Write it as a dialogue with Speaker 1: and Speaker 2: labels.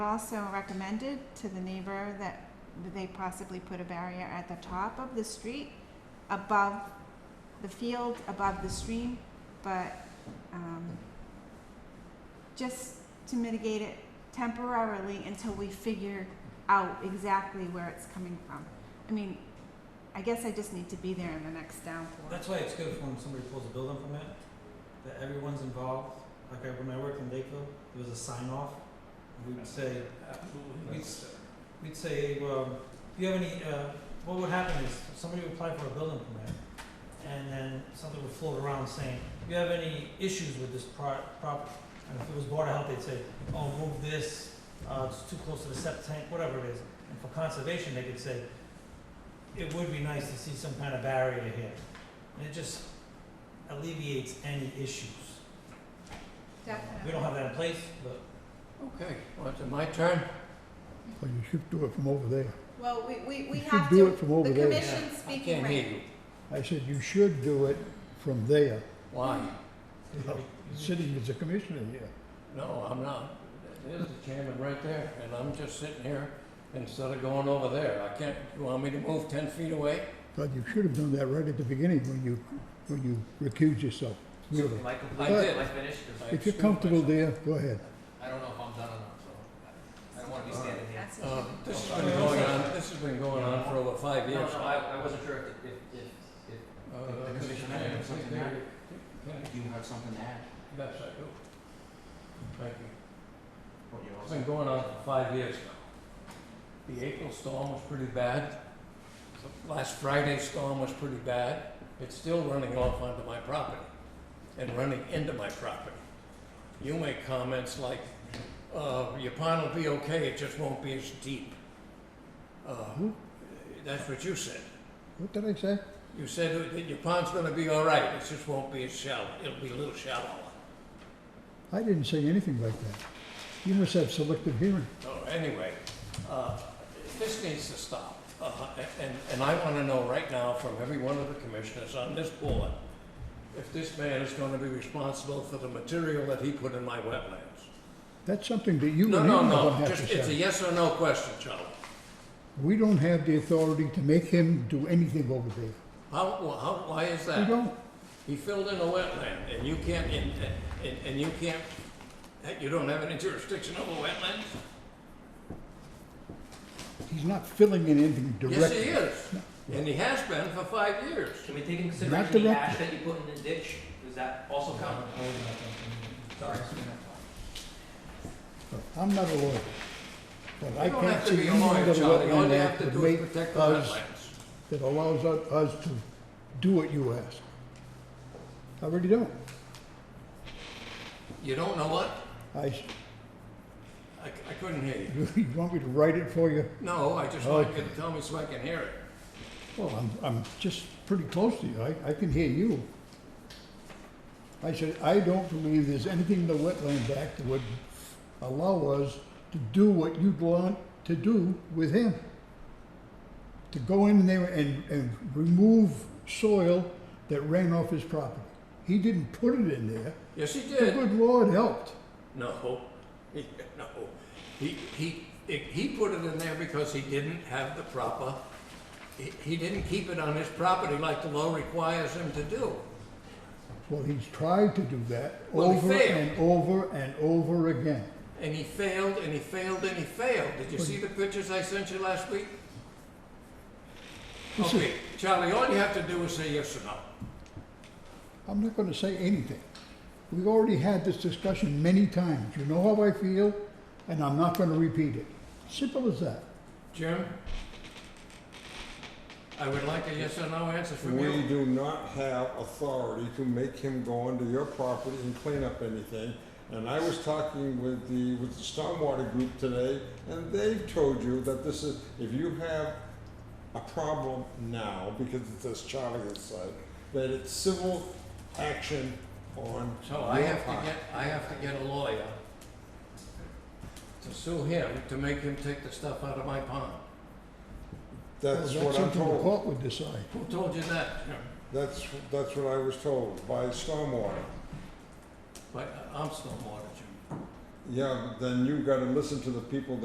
Speaker 1: Also recommended to the neighbor that they possibly put a barrier at the top of the street, above the field, above the stream, but, um, just to mitigate it temporarily until we figure out exactly where it's coming from. I mean, I guess I just need to be there in the next downpour.
Speaker 2: That's why it's good when somebody pulls a building permit, that everyone's involved. Like I, when I worked in Lakeville, there was a sign off. We'd say,
Speaker 3: Absolutely.
Speaker 2: We'd s- we'd say, well, do you have any, uh, what would happen is somebody would apply for a building permit and then something would float around saying, do you have any issues with this pro- prop? And if it was border health, they'd say, oh, move this, uh, it's too close to the septic tank, whatever it is. And for conservation, they could say, it would be nice to see some kind of barrier here. And it just alleviates any issues. We don't have that in place, but
Speaker 3: Okay, well, it's my turn.
Speaker 4: Well, you should do it from over there.
Speaker 1: Well, we, we, we
Speaker 4: You
Speaker 1: have
Speaker 4: should do
Speaker 1: to,
Speaker 4: it from over
Speaker 1: the
Speaker 4: there.
Speaker 1: commission's
Speaker 3: I
Speaker 1: speaking
Speaker 3: can't hear
Speaker 1: right.
Speaker 3: you.
Speaker 4: I said you should do it from there,
Speaker 3: Why?
Speaker 4: sitting as a commissioner here.
Speaker 3: No, I'm not. There's the chairman right there, and I'm just sitting here instead of going over there. I can't, you want me to move ten feet away?
Speaker 4: But you should have done that right at the beginning when you, when you recused yourself. Really.
Speaker 5: Am I
Speaker 3: I
Speaker 5: complete?
Speaker 3: did.
Speaker 5: Am I finished? 'Cause
Speaker 3: I
Speaker 4: If you're
Speaker 3: excused
Speaker 4: comfortable
Speaker 3: myself.
Speaker 4: there, go ahead.
Speaker 5: I don't know if I'm done or not, so I don't wanna be standing here. Um,
Speaker 1: That's
Speaker 3: Uh,
Speaker 1: what you-
Speaker 3: this has been going on, this has been going on for over five
Speaker 5: No,
Speaker 3: years.
Speaker 5: no, I, I wasn't sure if, if, if, if
Speaker 3: Uh,
Speaker 5: The commission
Speaker 3: Mr. Chairman,
Speaker 5: had something
Speaker 3: there-
Speaker 5: to
Speaker 3: there-
Speaker 5: you have something to add,
Speaker 3: Yes, I do. Thank you.
Speaker 5: what you
Speaker 3: It's
Speaker 5: also.
Speaker 3: been going on for five years now. The April storm was pretty bad. The Last Friday's storm was pretty bad. It's still running off onto my property and running into my property. You make comments like, uh, your pond will be okay, it just won't be as deep. Uh, That's what you said.
Speaker 4: What did I say?
Speaker 3: You said that your pond's gonna be all right, it just won't be as shallow, it'll be a little shallower.
Speaker 4: I didn't say anything like that. You must have selective hearing.
Speaker 3: So anyway, uh, this needs to stop. Uh, And, and I want to know right now from every one of the commissioners on this board, if this man is going to be responsible for the material that he put in my wetlands.
Speaker 4: That's something that you and
Speaker 3: No,
Speaker 4: him
Speaker 3: no,
Speaker 4: are gonna
Speaker 3: no,
Speaker 4: have
Speaker 3: just,
Speaker 4: to
Speaker 3: it's a
Speaker 4: say.
Speaker 3: yes or no question, Charlie.
Speaker 4: We don't have the authority to make him do anything over there.
Speaker 3: How, wh- how, why is that?
Speaker 4: We don't.
Speaker 3: He filled in a wetland and you can't, and, and- and you can't, you don't have any jurisdiction over wetlands?
Speaker 4: He's not filling in anything directly.
Speaker 3: Yes, he is. And he has been for five years.
Speaker 5: Can we take into consideration the
Speaker 4: direct-
Speaker 5: ash that you put in the ditch, does that also count? Sorry.
Speaker 4: Look, I'm not a lawyer, but I
Speaker 3: You don't have
Speaker 4: can't
Speaker 3: to
Speaker 4: see
Speaker 3: be a
Speaker 4: anything that
Speaker 3: lawyer,
Speaker 4: a
Speaker 3: Charlie, all
Speaker 4: wetland
Speaker 3: you have
Speaker 4: act
Speaker 3: to
Speaker 4: would
Speaker 3: do is
Speaker 4: make
Speaker 3: protect the
Speaker 4: us,
Speaker 3: wetlands.
Speaker 4: that allows u- us to do what you ask. I really don't.
Speaker 3: You don't know what?
Speaker 4: I, s-
Speaker 3: I, c- I couldn't hear you.
Speaker 4: you want me to write it for you?
Speaker 3: No, I just
Speaker 4: Oh.
Speaker 3: want you to tell me so I can hear it.
Speaker 4: Well, I'm, I'm just pretty close to you, I, I can hear you. I said, I don't believe there's anything in the Wetland Act that would allow us to do what you'd want to do with him. To go in there and, and remove soil that ran off his property. He didn't put it in there,
Speaker 3: Yes, he
Speaker 4: the
Speaker 3: did.
Speaker 4: good Lord helped.
Speaker 3: No, he, no. He, he, it- he put it in there because he didn't have the proper, he, he didn't keep it on his property like the law requires him to do.
Speaker 4: Well, he's tried to do that
Speaker 3: Well, he
Speaker 4: over
Speaker 3: failed.
Speaker 4: and over and over again.
Speaker 3: And he failed, and he failed, and he failed. Did you see the pictures I sent you last week?
Speaker 4: This is-
Speaker 3: Okay, Charlie, all you have to do is say yes or no.
Speaker 4: I'm not gonna say anything. We've already had this discussion many times. You know how I feel, and I'm not gonna repeat it. Simple as that.
Speaker 3: Jim? I would like a yes or no answer from
Speaker 6: We
Speaker 3: you.
Speaker 6: do not have authority to make him go onto your property and clean up anything. And I was talking with the, with the stormwater group today, and they've told you that this is, if you have a problem now, because it's as Charlie has said, that it's civil action on
Speaker 3: So I
Speaker 6: your
Speaker 3: have to
Speaker 6: part.
Speaker 3: get, I have to get a lawyer to sue him, to make him take the stuff out of my pond.
Speaker 6: That's
Speaker 4: Well,
Speaker 6: what I'm
Speaker 4: something the
Speaker 6: told.
Speaker 4: court would decide.
Speaker 3: Who told you that, Jim?
Speaker 6: That's, that's what I was told by stormwater.
Speaker 3: But I'm still more than Jim.
Speaker 6: Yeah, but then you gotta listen to the people